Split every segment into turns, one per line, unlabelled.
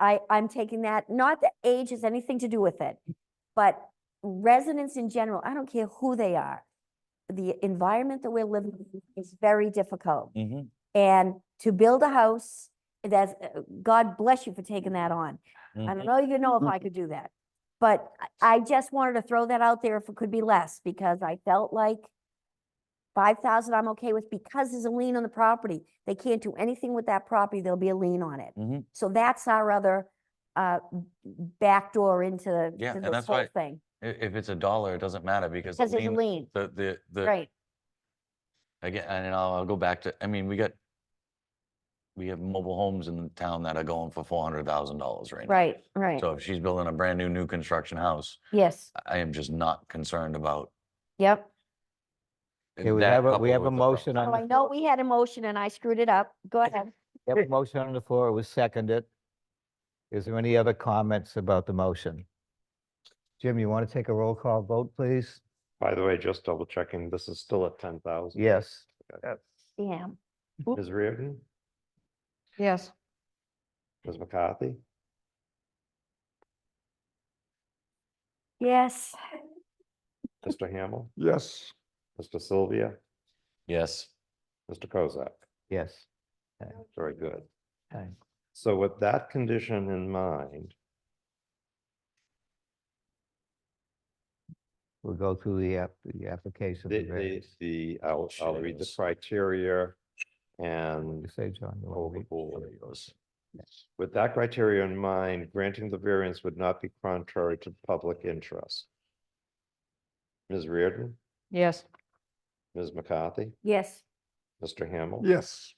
I, I'm taking that, not that age has anything to do with it, but residents in general, I don't care who they are. The environment that we're living in is very difficult.
Mm-hmm,
Mhm.
And to build a house, that's, uh, God bless you for taking that on.
mm-hmm.
I don't
Mhm.
know, you know if I could do that. But I- I just wanted to throw that out there if it could be less, because I felt like five thousand I'm okay with because there's a lien on the property. They can't do anything with that property, there'll be a lien on it.
Mhm.
So that's our other uh m- backdoor into the-
Yeah,
to
and
this
that's
whole
why-
thing.
I- If it's a dollar, it doesn't matter because the
Because there's a
lien,
lien,
the, the, the,
right,
again, and I'll, I'll go back to, I mean, we got, we have mobile homes in the town that are going for four hundred thousand dollars right now.
right, right.
So uh, if she's building a brand new, new construction house,
Yes,
I am just not concerned about
yep.
Okay, we
that
have a,
coupled
we have a
with the pro-
motion
So
on,
I
the
know we had a motion and I screwed it up. Go ahead.
we have a motion on the floor, it was seconded. Is there any other comments about the motion? Jim, you want to take a roll call vote, please?
By the way, just double checking, this is still at ten thousand.
Yes.
Yeah,
Ms. Reardon,
Yes.
Ms. McCarthy,
yes,
Mr. Hamel,
Yes.
Mr. Sylvia,
Yes.
Mr. Kozak.
Yes.
Very good.
Okay.
So with that condition in mind,
We'll go through the app, the application.
the,
for
the,
variance.
the, I'll, I'll read the
Shares.
criteria
What'd
and
you Say, John, you
Hold
want to
the
read?
board.
Yes.
With that criteria in mind, granting the variance would not be contrary to public interest. Ms. Reardon,
Yes.
Ms. McCarthy,
yes.
Mr. Hamel.
Yes.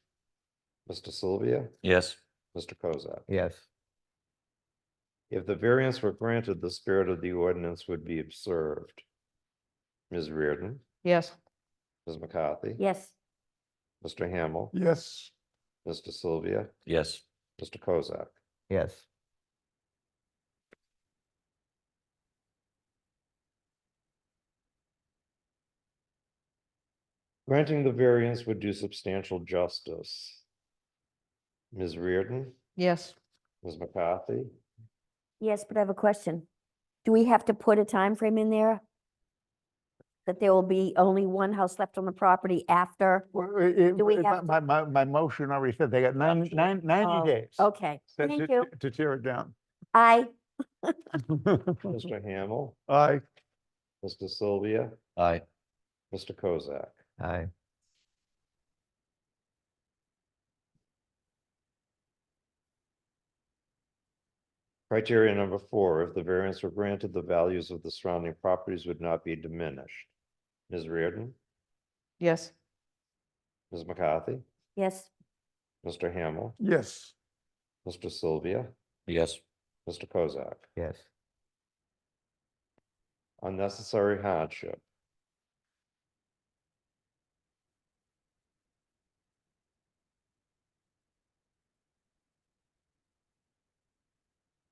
Mr. Sylvia,
Yes.
Mr. Kozak.
Yes,
If the variance were granted, the spirit of the ordinance would be observed. Ms. Reardon,
Yes.
Ms. McCarthy.
Yes,
Mr. Hamel,
Yes.
Mr. Sylvia,
Yes.
Mr. Kozak.
yes.
Granting the variance would do substantial justice. Ms. Reardon,
Yes.
Ms. McCarthy,
yes, but I have a question. Do we have to put a time frame in there? That there will be only one house left on the property after? Do we have
My, my, my motion already said they got nine, nine,
Oh,
ninety days.
Okay,
to-
thank
to-
you.
To tear it down.
I,
Mm-hmm.
Mr. Hamel,
Aye.
Mr. Sylvia,
Aye.
Mr. Kozak.
Aye.
Criteria number four, if the variance were granted, the values of the surrounding properties would not be diminished. Ms. Reardon,
Yes.
Ms. McCarthy,
yes,
Mr. Hamel,
Yes.
Mr. Sylvia,
Yes.
Mr. Kozak.
Yes,
Unnecessary hardship.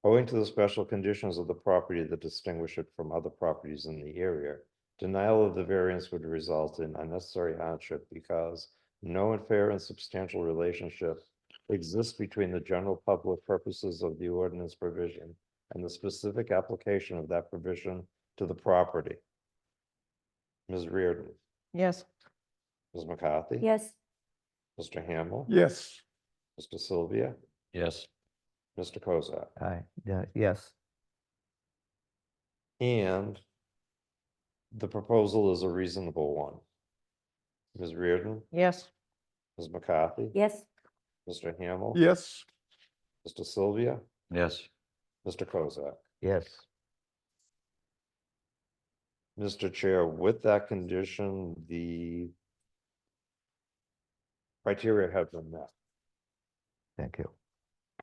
Owing to the special conditions of the property that distinguish it from other properties in the area, denial of the variance would result in unnecessary hardship because no unfair and substantial relationship exists between the general public purposes of the ordinance provision and the specific application of that provision to the property. Ms. Reardon,
Yes.
Ms. McCarthy.
yes,
Mr. Hamel.
Yes.
Mr. Sylvia,
Yes.
Mr. Kozak.
aye, yeah, yes,
And the proposal is a reasonable one. Ms. Reardon,
Yes.
Ms. McCarthy.
yes,
Mr. Hamel.
Yes.
Mr. Sylvia,
Yes.
Mr. Kozak.
yes.
Mr. Chair, with that condition, the criteria have been met.
Thank you.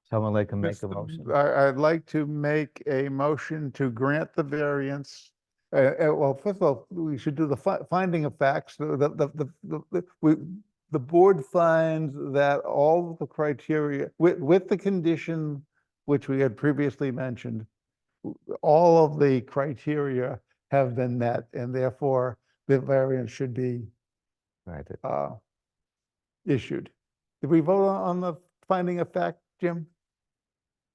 Someone like to make a
Mr.
motion?
I, I'd like to make a motion to grant the variance. Uh, uh, well, first of all, we should do the fi- finding of facts, the, the, the- the, the, the- we, the board finds that all the criteria, with, with the condition which we had previously mentioned, w- all of the criteria have been met, and therefore the variance should be,
Right,
uh, issued. Did we vote on on the finding of fact, Jim?